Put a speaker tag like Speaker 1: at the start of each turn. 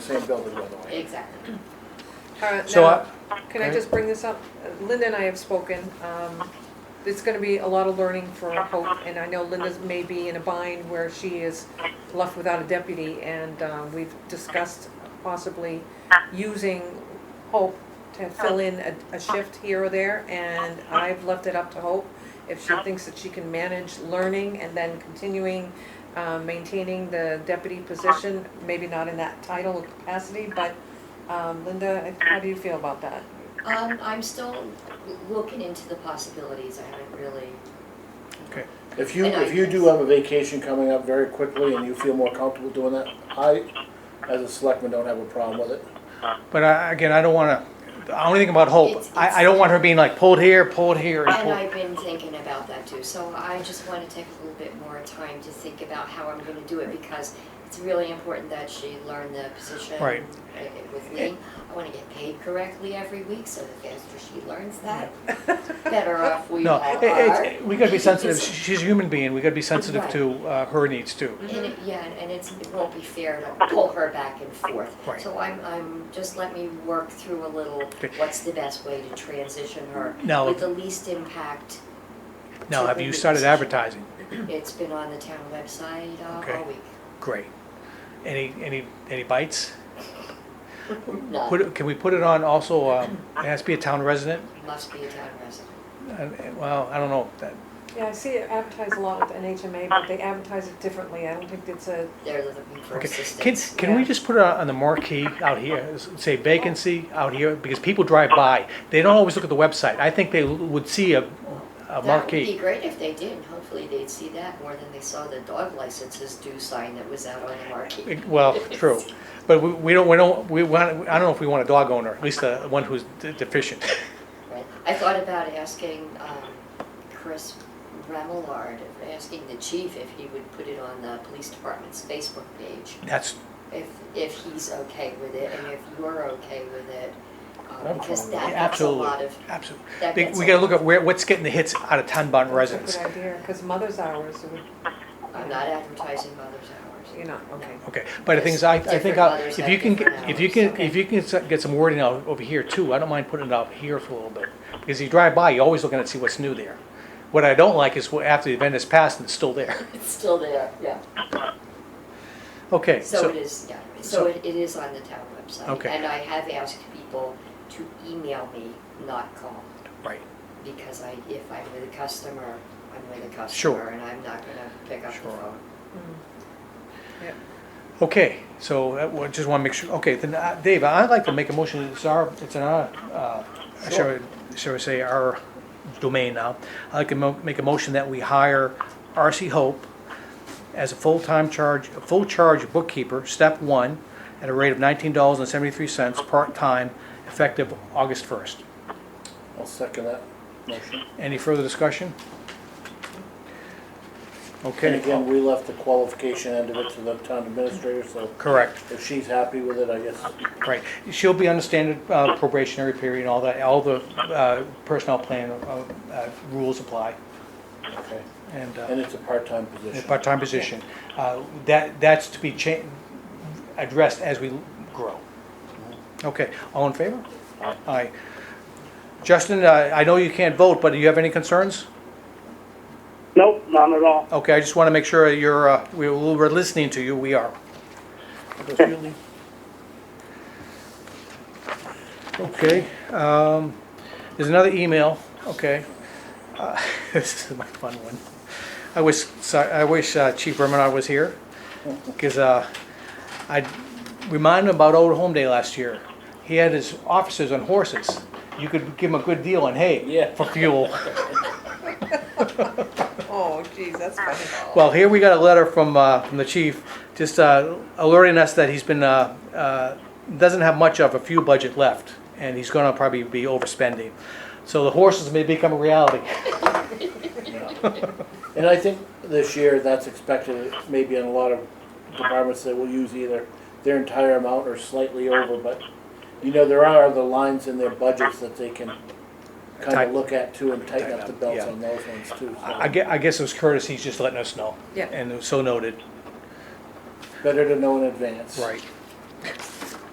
Speaker 1: same building, by the way.
Speaker 2: Exactly.
Speaker 3: Uh,
Speaker 4: So
Speaker 3: now, Can I
Speaker 4: okay.
Speaker 3: just bring this up? Uh, Linda and I have spoken. Um, It's going to be a lot of learning for Hope, and I know Linda may be in a bind where she is left without a deputy, and uh, we've discussed possibly using Hope to fill in a- a shift here or there, and I've left it up to Hope if she thinks that she can manage learning and then continuing um, maintaining the deputy position, maybe not in that title or capacity, but um, Linda, how do you feel about that?
Speaker 2: Um, I'm still looking into the possibilities, I haven't really,
Speaker 4: Okay.
Speaker 1: If you,
Speaker 2: And I
Speaker 1: if you do
Speaker 2: guess-
Speaker 1: have a vacation coming up very quickly and you feel more comfortable doing that, I, as a selectman, don't have a problem with it.
Speaker 4: But I, again, I don't wanna, the only thing about Hope,
Speaker 2: It's- it's-
Speaker 4: I, I don't want her being like pulled here, pulled here and
Speaker 2: and
Speaker 4: pulled.
Speaker 2: I've been thinking about that too, so I just wanna take a little bit more time to think about how I'm gonna do it, because it's really important that she learn the position
Speaker 4: Right.
Speaker 2: uh, with me. I wanna get paid correctly every week, so the faster she learns that, better off we
Speaker 4: No,
Speaker 2: all
Speaker 4: it,
Speaker 2: are.
Speaker 4: it's, we gotta be sensitive,
Speaker 2: Because-
Speaker 4: She- she's a human being, we gotta be sensitive
Speaker 2: Right.
Speaker 4: to, uh, her needs too.
Speaker 2: And it, yeah, and and it's, it won't be fair to pull her back and forth.
Speaker 4: Right.
Speaker 2: So I'm, I'm, just let me work through a little,
Speaker 4: Okay.
Speaker 2: what's the best way to transition her
Speaker 4: Now-
Speaker 2: with the least impact.
Speaker 4: Now,
Speaker 2: to
Speaker 4: have
Speaker 2: her
Speaker 4: you
Speaker 2: needs.
Speaker 4: started advertising?
Speaker 2: It's been on the town website uh,
Speaker 4: Okay.
Speaker 2: all week.
Speaker 4: Great. Any, any, any bites?
Speaker 2: No,
Speaker 4: Put, it- can we put it on also, um, it has to be a town resident?
Speaker 2: Must be a town resident.
Speaker 4: Uh, Well, I don't know, that,
Speaker 3: Yeah, I see it advertised a lot with NHMA, but they advertise it differently. I don't think it's a,
Speaker 2: They're looking for
Speaker 4: Okay, can,
Speaker 2: assistance.
Speaker 4: can we
Speaker 3: Yeah.
Speaker 4: just put it on the marquee out here, s- say vacancy out here, because people drive by, they don't always look at the website, I think they would see a, a
Speaker 2: That would be
Speaker 4: marquee.
Speaker 2: great if they did, and hopefully they'd see that more than they saw the dog licenses due sign that was out on the marquee.
Speaker 4: Well, true, but we, we don't, we don't, we want, I don't know if we want a dog owner, at least the one who's de- deficient.
Speaker 2: Right. I thought about asking um, Chris Remillard, asking the chief if he would put it on the police department's Facebook page,
Speaker 4: That's,
Speaker 2: if, if he's okay with it and if you're okay with it. um,
Speaker 1: I'm
Speaker 2: Because
Speaker 1: fine with
Speaker 2: that
Speaker 1: it.
Speaker 2: gets a lot
Speaker 4: absolutely,
Speaker 2: of,
Speaker 4: absolutely.
Speaker 2: that
Speaker 4: They-
Speaker 2: gets
Speaker 4: We
Speaker 2: a
Speaker 4: gotta
Speaker 2: lot.
Speaker 4: look at where, what's getting the hits out of Tonbon
Speaker 3: that's a good
Speaker 4: residents.
Speaker 3: idea, because mother's hours, would-
Speaker 2: I'm not advertising mother's hours.
Speaker 3: you're not, okay.
Speaker 4: Okay, but the thing is, I, I think,
Speaker 2: Different
Speaker 4: I'll-
Speaker 2: mothers
Speaker 4: if
Speaker 2: have
Speaker 4: you can,
Speaker 2: different
Speaker 4: get- if you
Speaker 2: hours,
Speaker 4: can,
Speaker 2: okay.
Speaker 4: if you can s- get some wording out over here too, I don't mind putting it out here for a little bit. Because you drive by, you're always looking to see what's new there. What I don't like is wh- after the event is passed and it's still there.
Speaker 2: It's still there, yeah.
Speaker 4: Okay,
Speaker 2: So
Speaker 4: so,
Speaker 2: it is, yeah,
Speaker 4: so-
Speaker 2: so it it is on the town website.
Speaker 4: Okay.
Speaker 2: And I have asked people to email me, not call.
Speaker 4: right,
Speaker 2: because I, if I'm with a customer, I'm with a
Speaker 4: Sure.
Speaker 2: customer, and I'm not gonna pick up the
Speaker 4: Sure.
Speaker 2: phone.
Speaker 3: Yep.
Speaker 4: okay, so that- well, just wanna make sure, okay, then, uh, Dave, I'd like to make a motion, it's our, it's in our, uh, shall we, shall we say, our domain now. I'd like to mo- make a motion that we hire R.C. Hope as a full-time charge, a full charge bookkeeper, step one, at a rate of nineteen dollars and seventy-three cents, part-time, effective August first.
Speaker 1: I'll second that motion.
Speaker 4: Any further discussion?
Speaker 1: And
Speaker 4: Okay,
Speaker 1: again, we left the qualification end of it to the town administrator, so
Speaker 4: correct,
Speaker 1: if she's happy with it, I guess,
Speaker 4: right. She'll be on the standard uh, probationary period and all that, all the uh, personnel plan uh, uh, rules apply,
Speaker 1: okay.
Speaker 4: and, uh,
Speaker 1: And it's a part-time
Speaker 4: in a
Speaker 1: position.
Speaker 4: part-time position. Uh, That, that's to be cha- addressed as we grow. Okay, all in favor? Aye. Justin, uh, I know you can't vote, but do you have any concerns?
Speaker 5: Nope, none at all.
Speaker 4: Okay, I just want to make sure you're, uh, we- we're listening to you, we are. Okay, um, there's another email, okay. Uh, This is my fun one. I wish, so- I wish uh, Chief Remenar was here, because I reminded him about Old Home Day last year. He had his officers on horses. You could give him a good deal on hay
Speaker 1: Yeah.
Speaker 4: for fuel.
Speaker 3: Oh, geez, that's funny.
Speaker 4: Well, here we got a letter from, uh, from the chief, just, uh, alerting us that he's been, uh, uh, doesn't have much of a fuel budget left, and he's gonna probably be overspending. So the horses may become a reality.
Speaker 1: And I think this year, that's expected, maybe in a lot of departments, they will use either their entire amount or slightly over, but, you know, there are the lines in their budgets that they can kind
Speaker 4: Tight-
Speaker 1: of look at too and tighten
Speaker 4: tighten
Speaker 1: up the
Speaker 4: up,
Speaker 1: belts
Speaker 4: yeah.
Speaker 1: on those ones too. so.
Speaker 4: I guess, I guess it was Curtis, he's just letting us know.
Speaker 3: Yeah.
Speaker 4: And it was so noted,
Speaker 1: Better to know in advance.
Speaker 4: right.